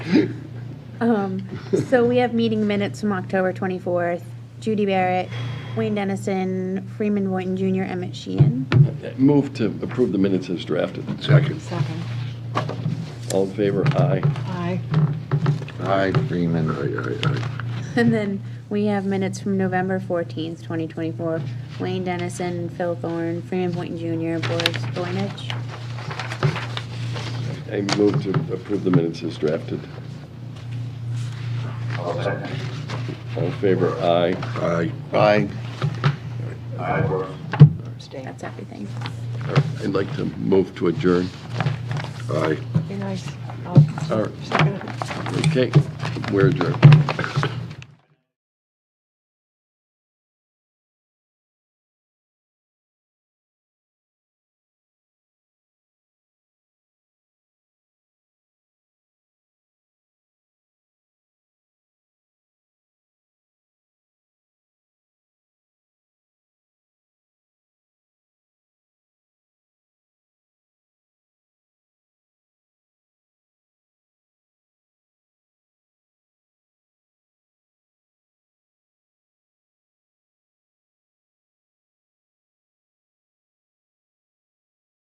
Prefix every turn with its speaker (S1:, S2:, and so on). S1: Um, So we have meeting minutes from October 24th. Judy Barrett, Wayne Dennison, Freeman Boynton Jr., Emmett Sheehan.
S2: Move to approve the minutes as drafted.
S3: Second.
S4: Second.
S2: All in favor? Aye.
S4: Aye.
S3: Aye. Freeman. Aye, aye, aye.
S1: And then we have minutes from November 14th, 2024. Wayne Dennison, Phil Thorne, Freeman Boynton Jr., Boris Boynich.
S2: I move to approve the minutes as drafted. All in favor? Aye.
S3: Aye.
S2: Aye.
S4: Abstain.
S1: That's everything.
S2: I'd like to move to adjourn.
S3: Aye.
S4: Be nice.
S2: All right.
S4: Second.
S2: Okay, we're adjourned.